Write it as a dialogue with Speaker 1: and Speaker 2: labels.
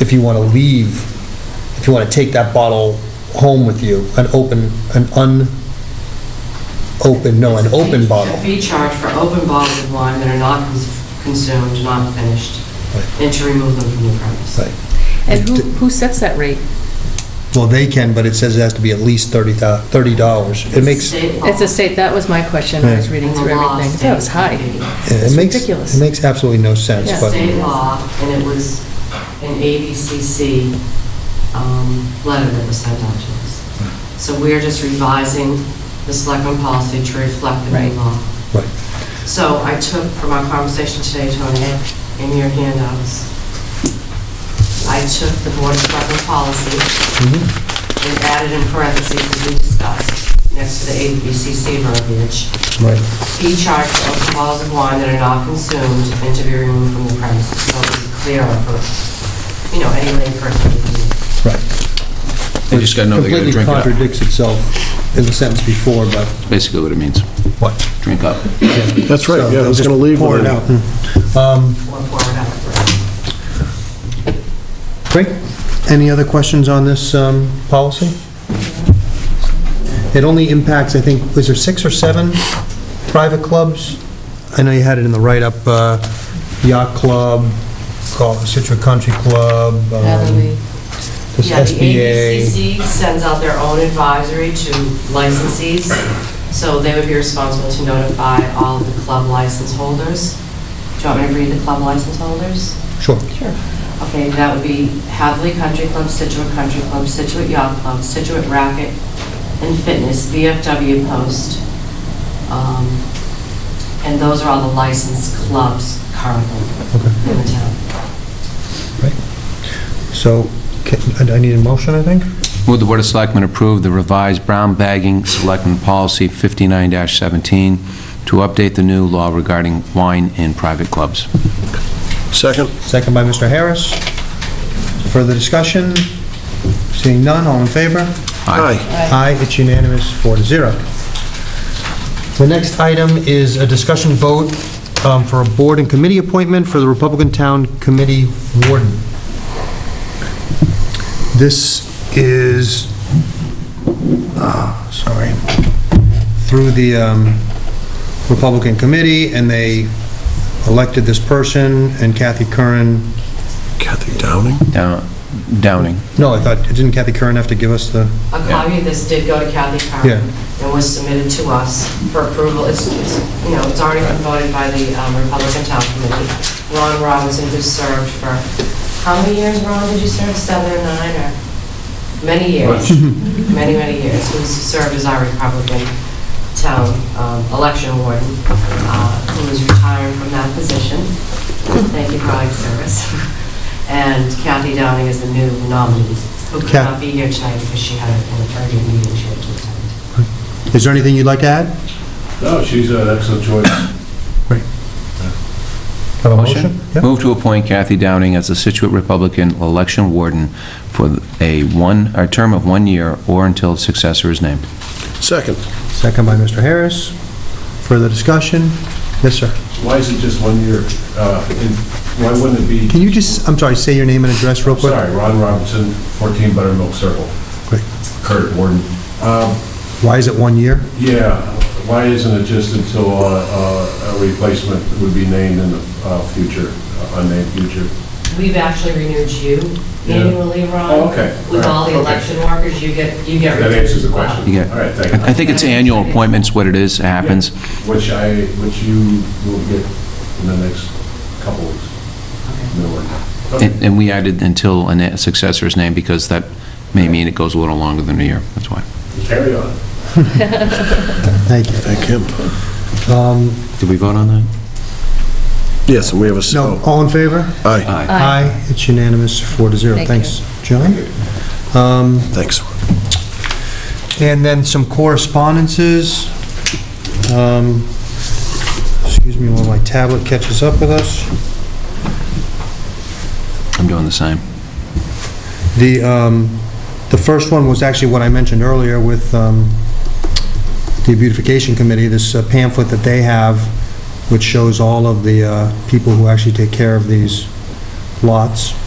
Speaker 1: if you want to leave, if you want to take that bottle home with you, an open, an un-open, no, an
Speaker 2: It's a fee-
Speaker 1: open
Speaker 2: A
Speaker 1: bottle.
Speaker 2: fee charge for open bottles of wine that are not cons- consumed, not finished,
Speaker 1: Right.
Speaker 2: and to remove them from the premise.
Speaker 1: Right.
Speaker 3: And who, who sets that rate?
Speaker 1: Well, they can, but it says it has to be at least thirty thou, thirty dollars. It makes, it
Speaker 2: State law.
Speaker 3: It's a state, that was my question, I was
Speaker 1: Yeah.
Speaker 3: reading
Speaker 2: And the
Speaker 3: through
Speaker 2: law
Speaker 3: everything. That was
Speaker 2: states
Speaker 3: high.
Speaker 2: it can
Speaker 3: It's
Speaker 1: makes,
Speaker 3: ridiculous.
Speaker 1: it makes absolutely no
Speaker 2: be.
Speaker 1: sense,
Speaker 3: Yeah.
Speaker 2: It's
Speaker 1: but,
Speaker 2: state law, and it was an ABCC um, letter that was sent out to us. So we are just revising the selectmen policy to reflect the
Speaker 3: Right.
Speaker 2: new law.
Speaker 1: right.
Speaker 2: So I took from our conversation today, Tony, in your handouts, I took the board of selectmen policy,
Speaker 1: Mhm.
Speaker 2: and added in parentheses, as we discussed, next to the ABCC verbiage,
Speaker 1: Right,
Speaker 2: fee charged for open bottles of wine that are not consumed and to be removed from the premises, so it's clearer for, you know, any layperson to read.
Speaker 1: right.
Speaker 4: They just gotta know they're gonna drink it up.
Speaker 1: Completely contradicts itself in the sentence before, but
Speaker 4: basically what it means,
Speaker 1: what?
Speaker 4: drink up.
Speaker 5: That's right,
Speaker 1: So
Speaker 5: yeah, I
Speaker 1: they'll
Speaker 5: was
Speaker 1: just
Speaker 5: going to leave
Speaker 1: Pour
Speaker 5: with
Speaker 1: it
Speaker 5: it.
Speaker 1: out. Um,
Speaker 2: or pour it out.
Speaker 1: Great. Any other questions on this um, policy? It only impacts, I think, was there six or seven private clubs? I know you had it in the write-up, uh, yacht club, call- Situate Country Club, um,
Speaker 2: Elevate.
Speaker 1: this
Speaker 2: Yeah, the
Speaker 1: SBA.
Speaker 2: ABCC sends out their own advisory to licensees, so they would be responsible to notify all of the club license holders. Do you want me to read the club license holders?
Speaker 1: Sure.
Speaker 2: Okay, that would be Hadley Country Club, Situate Country Club, Situate Yacht Club, Situate Racket and Fitness, VFW Post. Um, And those are all the licensed clubs currently in the town.
Speaker 1: So, ca- I I need a motion, I think?
Speaker 4: Would the Board of Selectmen approve the revised brown bagging selectmen policy 59-17 to update the new law regarding wine in private clubs?
Speaker 5: Second?
Speaker 1: Second by Mr. Harris. Further discussion? Seeing none, all in favor?
Speaker 5: Aye.
Speaker 1: Aye, it's unanimous, four to zero. The next item is a discussion vote um, for a board and committee appointment for the Republican Town Committee Warden. This is, ah, sorry, through the um, Republican Committee, and they elected this person, and Kathy Curran,
Speaker 5: Kathy Downing?
Speaker 4: Down- Downing.
Speaker 1: no, I thought, didn't Kathy Curran have to give us the,
Speaker 2: A copy of this did go to Kathy
Speaker 1: Yeah.
Speaker 2: Curran and was submitted to us for approval. It's, it's, you know, it's already been voted by the um, Republican Town Committee. Ron Robinson, who served for, how many years, Ron, did you serve? Seven or nine or? Many years, many, many years. Who served as our Republican Town um, Election Warden, uh, who is retiring from that position. Thank you for all your service. And Kathy Downing is the new nominee, who could
Speaker 1: Kath-
Speaker 2: not be here tonight because she had an urgent meeting she had to attend.
Speaker 1: is there anything you'd like to add?
Speaker 6: No, she's an excellent choice.
Speaker 1: Have a motion? Yeah.
Speaker 4: Move to appoint Kathy Downing as the Situate Republican Election Warden for a one, a term of one year or until a successor is named.
Speaker 5: Second.
Speaker 1: Second by Mr. Harris. Further discussion? Yes, sir.
Speaker 6: Why is it just one year? uh, and Why wouldn't it be,
Speaker 1: Can you just, I'm sorry, say your name and address real quick?
Speaker 6: sorry, Ron Robinson, 14 Buttermilk Circle,
Speaker 1: Great.
Speaker 6: Kurt Warden. Um,
Speaker 1: Why is it one year?
Speaker 6: Yeah, why isn't it just until uh, uh, a replacement would be named in the uh, future, uh, unnamed future?
Speaker 2: We've actually renewed you
Speaker 6: Yeah.
Speaker 2: annually, Ron.
Speaker 6: Oh, okay.
Speaker 2: With all the
Speaker 6: All right, okay.
Speaker 2: election workers, you get, you get.
Speaker 6: That
Speaker 2: renewed
Speaker 6: answers the
Speaker 2: as well.
Speaker 6: question.
Speaker 4: You get-
Speaker 6: All right, thank you.
Speaker 4: I think it's annual appointments, what it is, it happens.
Speaker 6: Which I, which you will get in the next couple weeks. Middle of- Okay.
Speaker 4: And and we added until a na- successor is named because that may mean it goes a little longer than a year, that's why.
Speaker 6: Carry on.
Speaker 1: Thank you.
Speaker 5: Thank him.
Speaker 1: Um,
Speaker 4: Did we vote on that?
Speaker 5: Yes, and we have a, s-
Speaker 1: No,
Speaker 5: oh,
Speaker 1: all in favor?
Speaker 5: aye,
Speaker 3: Aye.
Speaker 1: It's unanimous, four to zero.
Speaker 3: Thank
Speaker 1: Thanks, John. Um,
Speaker 5: thanks.
Speaker 1: And then some correspondences. Um, Excuse me while my tablet catches up with us.
Speaker 4: I'm doing the same.
Speaker 1: The, um, the first one was actually what I mentioned earlier with, um, the beautification committee, this uh, pamphlet that they have, which shows all of the, uh, people who actually take care of these lots.